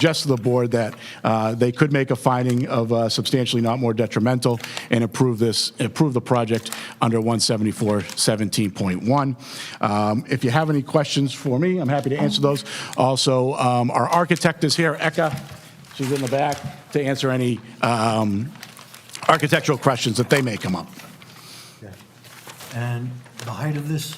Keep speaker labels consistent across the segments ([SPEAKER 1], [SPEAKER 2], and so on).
[SPEAKER 1] just to the board that uh, they could make a finding of uh, substantially not more detrimental and approve this, approve the project under 174-17.1. Um, If you have any questions for me, I'm happy to answer those. Also, um, our architect is here, Eka, she's in the back, to answer any um, architectural questions that they may come up.
[SPEAKER 2] Okay. And the height of this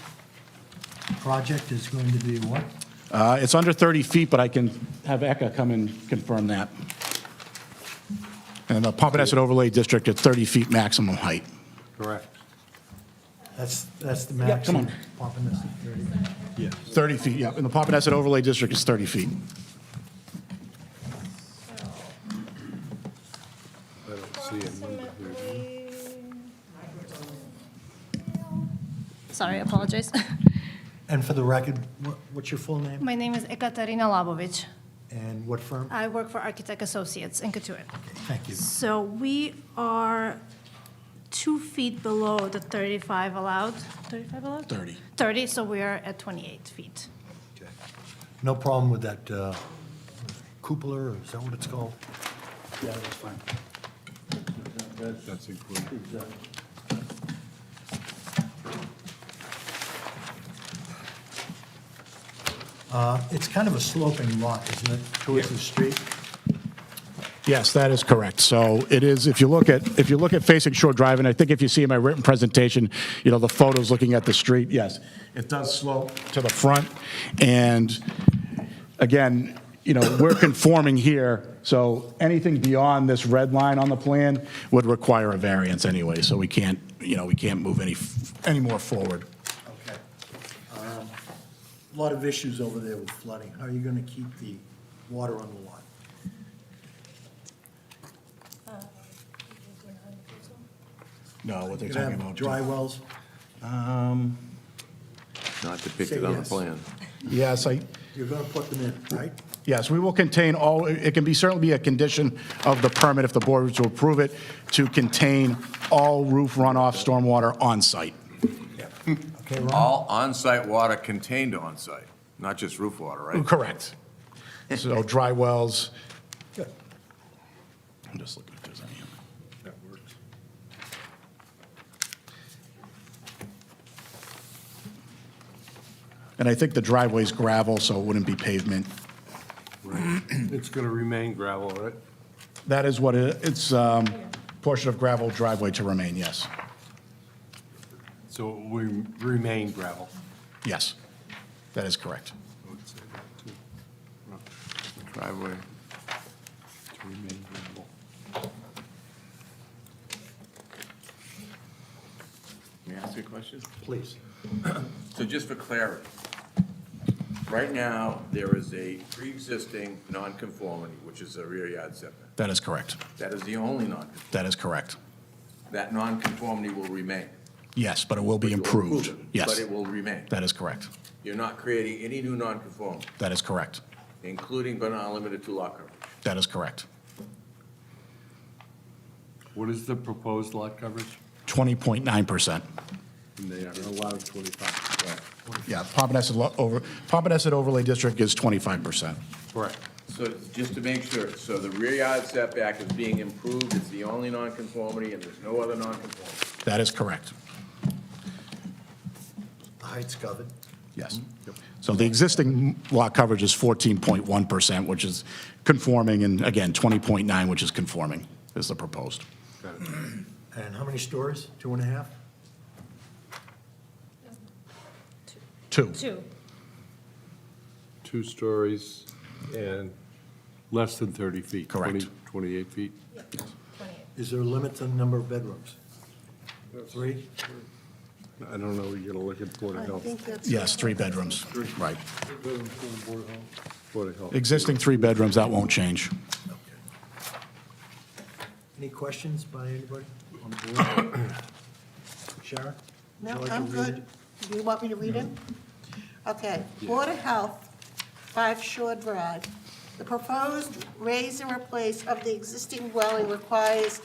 [SPEAKER 2] project is going to be what?
[SPEAKER 1] Uh, It's under 30 feet, but I can have Eka come and confirm that. And the Pompanesett Overlay District at 30 feet maximum height.
[SPEAKER 3] Correct.
[SPEAKER 2] That's, that's the
[SPEAKER 1] Yeah, come
[SPEAKER 2] maximum. Pompanesett 30.
[SPEAKER 1] 30 feet, yeah, and the Pompanesett Overlay District is 30 feet.
[SPEAKER 3] I don't see a number here.
[SPEAKER 4] Sorry, I apologize.
[SPEAKER 2] And for the record, what- what's your full name
[SPEAKER 4] My name is Ekaterina Labovich.
[SPEAKER 2] and what firm?
[SPEAKER 4] I work for Architect Associates in Katuitt.
[SPEAKER 2] Thank you.
[SPEAKER 4] So we are two feet below the 35 allowed, 35 allowed?
[SPEAKER 1] 30.
[SPEAKER 4] 30, so we are at 28 feet.
[SPEAKER 2] Okay. No problem with that uh, cupola, or is that what it's called? Yeah, that's fine.
[SPEAKER 3] That's included.
[SPEAKER 2] Uh, It's kind of a sloping lot, isn't it, towards the street?
[SPEAKER 1] Yes, that is correct. So it is, if you look at, if you look at facing Shore Drive, and I think if you see in my written presentation, you know, the photos looking at the street, yes, it does slope to the front. And again, you know, we're conforming here, so anything beyond this red line on the plan would require a variance anyway, so we can't, you know, we can't move any, f- any more forward.
[SPEAKER 2] Okay. Um, A Lot of issues over there with flooding. How are you going to keep the water on the lot?
[SPEAKER 1] No, what they're talking
[SPEAKER 2] You're going to have
[SPEAKER 1] about.
[SPEAKER 2] dry wells?
[SPEAKER 5] Not
[SPEAKER 2] Say
[SPEAKER 5] depicted on the
[SPEAKER 2] yes.
[SPEAKER 5] plan.
[SPEAKER 1] Yes, I,
[SPEAKER 2] You're going to put them in, right?
[SPEAKER 1] Yes, we will contain all, it can be, certainly be a condition of the permit if the board were to approve it, to contain all roof runoff stormwater on-site.
[SPEAKER 2] Okay, Ron?
[SPEAKER 5] All on-site water contained on-site, not just roof water, right?
[SPEAKER 1] Correct. So dry wells. I'm just looking if there's any. And I think the driveway's gravel, so it wouldn't be pavement.
[SPEAKER 3] It's going to remain gravel, right?
[SPEAKER 1] That is what, it- it's um, portion of gravel driveway to remain, yes.
[SPEAKER 3] So it will remain gravel.
[SPEAKER 1] Yes, that is correct.
[SPEAKER 3] I would say that, too.
[SPEAKER 5] Driveway.
[SPEAKER 3] To remain gravel.
[SPEAKER 5] May I ask you a question?
[SPEAKER 2] Please.
[SPEAKER 5] So just for clarity, right now, there is a pre-existing non-conformity, which is a rear yard setback.
[SPEAKER 1] That is correct.
[SPEAKER 5] That is the only non,
[SPEAKER 1] That is correct.
[SPEAKER 5] that non-conformity will remain.
[SPEAKER 1] Yes, but it will be
[SPEAKER 5] You'll approve
[SPEAKER 1] improved.
[SPEAKER 5] it, But
[SPEAKER 1] Yes,
[SPEAKER 5] it will remain.
[SPEAKER 1] that is correct.
[SPEAKER 5] You're not creating any new non-conformity,
[SPEAKER 1] That is correct.
[SPEAKER 5] including but not limited to lot coverage.
[SPEAKER 1] That is correct.
[SPEAKER 3] What is the proposed lot coverage?
[SPEAKER 1] 20.9%.
[SPEAKER 3] And they are allowed 25.
[SPEAKER 1] Yeah, Pompanesett lo- over, Pompanesett overlay district is 25%.
[SPEAKER 3] Correct.
[SPEAKER 5] So just to make sure, so the rear yard setback is being improved, it's the only nonconformity, and there's no other nonconformity.
[SPEAKER 1] That is correct.
[SPEAKER 2] The height's covered.
[SPEAKER 1] Yes. So the existing lot coverage is 14.1%, which is conforming, and again, 20.9, which is conforming, is the proposed.
[SPEAKER 3] Got it.
[SPEAKER 2] And how many stories? Two and a half?
[SPEAKER 1] Two.
[SPEAKER 4] Two.
[SPEAKER 3] Two stories and less than 30 feet.
[SPEAKER 1] Correct.
[SPEAKER 3] 20 28 feet.
[SPEAKER 2] Is there a limit to the number of bedrooms? Three?
[SPEAKER 3] I don't know, you're going to look at Board of Health.
[SPEAKER 1] Yes, three bedrooms. Right.
[SPEAKER 3] Board of Health.
[SPEAKER 1] Existing three bedrooms, that won't change.
[SPEAKER 2] Any questions by anybody on the board? Sharon? Would
[SPEAKER 6] No,
[SPEAKER 2] you like to
[SPEAKER 6] I'm
[SPEAKER 2] read
[SPEAKER 6] good.
[SPEAKER 2] it?
[SPEAKER 6] Do you want me to read it? Okay. Board of Health, Five Shore Drive. The proposed raise and replace of the existing dwelling requires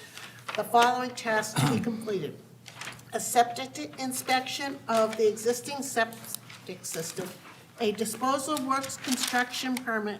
[SPEAKER 6] the following tasks to be completed. A septic inspection of the existing septic system, a disposal works construction permit